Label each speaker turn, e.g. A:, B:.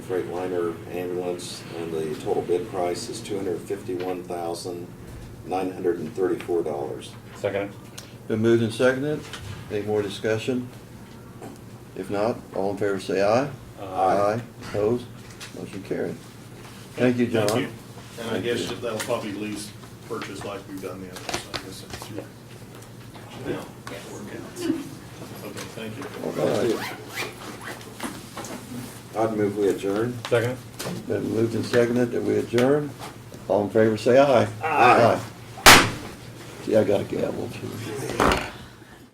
A: Freightliner ambulance, and the total bid price is two hundred fifty-one thousand, nine hundred and thirty-four dollars.
B: Second.
C: Been moved and seconded. Any more discussion? If not, all in favor say aye.
B: Aye.
C: Opposed? Motion carried. Thank you,
D: Thank
C: John.
D: you. And I
C: Thank
D: guess
C: you.
D: that'll probably lease purchase like we've done the others, I guess. it's-
B: Yeah.
D: Yeah, work out. Okay, thank you.
C: All right.
A: I'd move we adjourn.
B: Second.
C: Been moved and seconded that we adjourn. All in favor say aye.
A: Aye.
C: See, I got a gavel too.